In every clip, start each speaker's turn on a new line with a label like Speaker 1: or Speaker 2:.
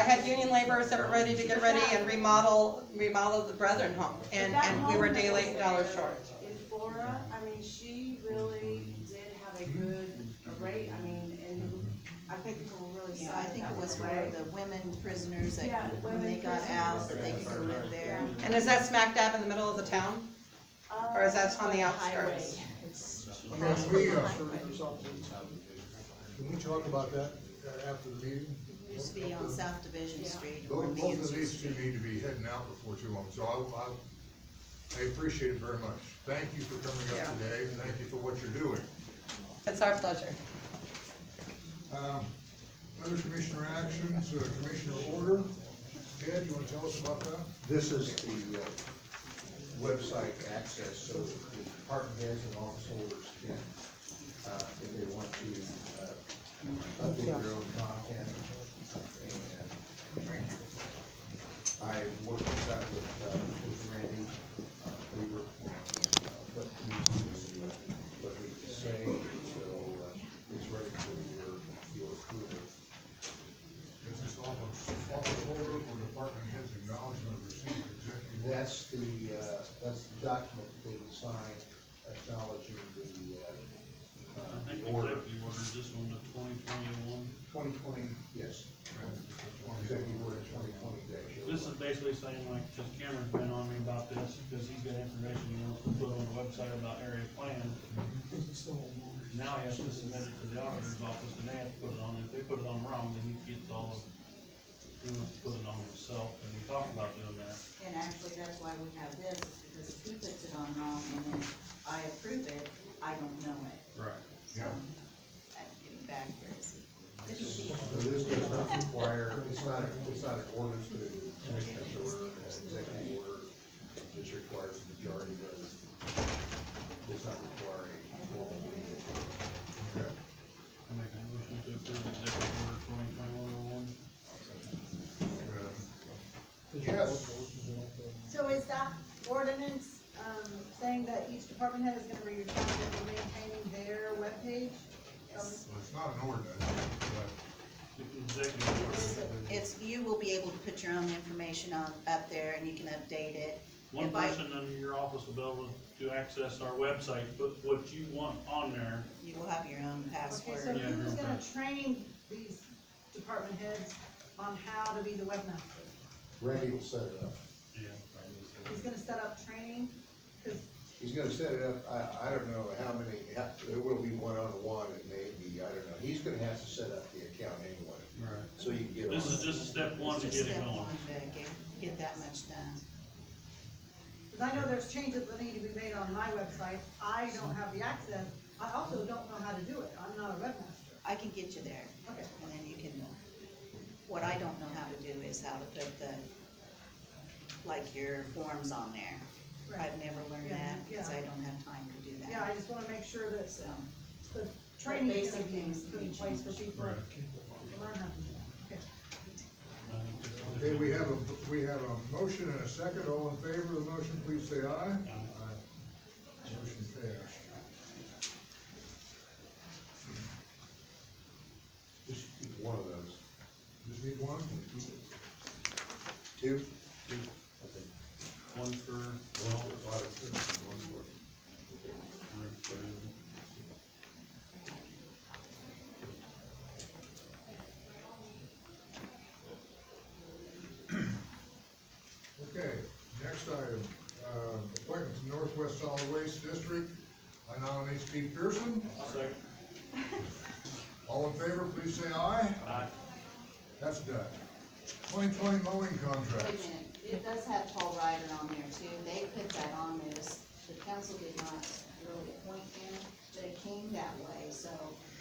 Speaker 1: had union laborers that were ready to get ready and remodel, remodel the Brethren home, and,
Speaker 2: But that
Speaker 1: and we were
Speaker 2: home
Speaker 1: day
Speaker 2: that
Speaker 1: late and dollar
Speaker 2: was there
Speaker 1: short.
Speaker 2: In Flora, I mean, she really did have a good rate, I mean, and I think people were really
Speaker 3: Yeah, I
Speaker 2: excited
Speaker 3: think it
Speaker 2: about
Speaker 3: was
Speaker 2: the
Speaker 3: for
Speaker 2: rate.
Speaker 3: the women prisoners
Speaker 2: Yeah,
Speaker 3: that, when
Speaker 2: women
Speaker 3: they got out, that they could go live
Speaker 4: prisoners.
Speaker 3: there.
Speaker 1: And is that smack dab in the middle of the town? or is that on the
Speaker 2: Uh,
Speaker 1: outskirts?
Speaker 2: highway.
Speaker 5: I mean, we, uh, Can we talk about that uh, after the meeting?
Speaker 3: It used to be on South Division Street or
Speaker 5: Both, both of
Speaker 3: Beansy
Speaker 5: these two
Speaker 3: Street.
Speaker 5: need to be heading out before too long, so I, I, I appreciate it very much. Thank you for coming
Speaker 1: Yeah.
Speaker 5: up today, and thank you for what you're doing.
Speaker 1: It's our pleasure.
Speaker 5: Um, Other commissioner actions, uh, commissioner order, Ted, you wanna tell us about that?
Speaker 6: This is the uh, website access, so the department heads and office holders can, uh, if they want to, uh, update their own content. And I worked this out with, uh, with Randy, uh, we were, uh, what we do, what we say, so uh, it's ready for your, your approval.
Speaker 5: Is this office, office order or department heads acknowledgement of receipt of executive? order?
Speaker 6: That's the, uh, that's the document that they signed acknowledging the, uh,
Speaker 4: I
Speaker 6: uh,
Speaker 4: think
Speaker 6: the
Speaker 4: we
Speaker 6: order.
Speaker 4: took- you ordered this one to twenty twenty-one.
Speaker 6: Twenty twenty, yes, executive order twenty twenty dash.
Speaker 4: This is basically saying like, because Cameron's been on me about this, because he's got information he wants to put on the website about area plan. Now he has to submit it to the auditor's office, and they have to put it on, if they put it on wrong, then he gets all of, he wants to put it on himself, and we talked about doing that.
Speaker 3: And actually, that's why we have this, is because if he puts it on wrong and then I approve it, I don't know it.
Speaker 4: Right.
Speaker 5: Yeah.
Speaker 3: I'm getting back here. It should be-
Speaker 6: So this does not require, it's not, it's not an ordinance, but it's a commissioner's order, an executive order. It just requires a majority vote. Does not require a formal meeting.
Speaker 5: Okay.
Speaker 4: I make a motion to approve executive order twenty twenty-one oh one.
Speaker 5: Uh, Yes.
Speaker 7: So is that ordinance, um, saying that each department head is gonna be responsible for maintaining their webpage? Um,
Speaker 5: Well, it's not an ordinance, but
Speaker 4: Executive order.
Speaker 3: It's, you will be able to put your own information on, up there and you can update it.
Speaker 4: One
Speaker 3: If I-
Speaker 4: person under your office will be able to access our website, put what you want on there,
Speaker 3: You will have your own
Speaker 7: Okay, so
Speaker 3: password.
Speaker 4: Yeah,
Speaker 7: who's
Speaker 4: no
Speaker 7: gonna
Speaker 4: problem.
Speaker 7: train these department heads on how to be the webmaster?
Speaker 6: Randy will set it up.
Speaker 4: yeah.
Speaker 7: He's gonna set up training, cause
Speaker 6: He's gonna set it up, I, I don't know how many, how- there will be one-on-one, it may be, I don't know, he's gonna have to set up the account anyway,
Speaker 4: Right.
Speaker 6: so you can get on.
Speaker 4: This is just step one to
Speaker 3: It's just
Speaker 4: get it
Speaker 3: step
Speaker 4: going.
Speaker 3: one to Get get that much done.
Speaker 7: Because I know there's changes that need to be made on my website, I don't have the access, I also don't know how to do it, I'm not a webmaster.
Speaker 3: I can get you there.
Speaker 7: Okay.
Speaker 3: And then you can, what I don't know how to do is how to put the, like your forms on there. I've never learned that, because I don't have time to do that.
Speaker 7: Yeah, I just wanna make sure that
Speaker 3: So,
Speaker 7: the training is
Speaker 3: Basic things
Speaker 7: put in place for people to learn how to do that. Okay.
Speaker 5: Okay, we have a, we have a motion and a second, all in favor of the motion, please say aye. Aye. Motion passed.
Speaker 6: Just one of those,
Speaker 5: Just need one?
Speaker 6: two? Two.
Speaker 4: One for
Speaker 6: One for audit, one for.
Speaker 5: Okay, next item, uh, appointment to Northwest Solid Waste District, I nominate Steve Pearson.
Speaker 4: Second.
Speaker 5: All in favor, please say aye.
Speaker 4: Aye.
Speaker 5: That's done. Twenty twenty mowing
Speaker 3: wait a
Speaker 5: contracts.
Speaker 3: minute, it does have Paul Ryder on there too, they put that on this, the council did not really appoint him, but it came that way, so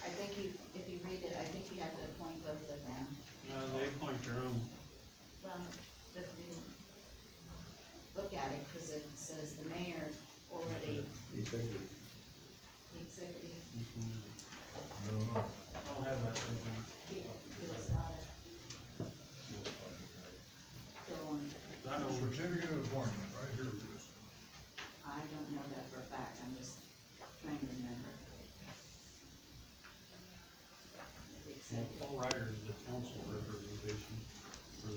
Speaker 3: I think you, if you read it, I think you have to appoint both of them.
Speaker 4: No, they point their own.
Speaker 3: Well, but you look at it, cause it says the mayor already,
Speaker 6: You think it-
Speaker 3: the executive,
Speaker 5: I don't know.
Speaker 4: I don't have that. with me.
Speaker 3: he, he was not a. Go on,
Speaker 4: I know,
Speaker 5: Certificate of appointment, right here it is.
Speaker 3: I don't know that for a fact, I'm just trying to remember. The executive.
Speaker 4: Paul Ryder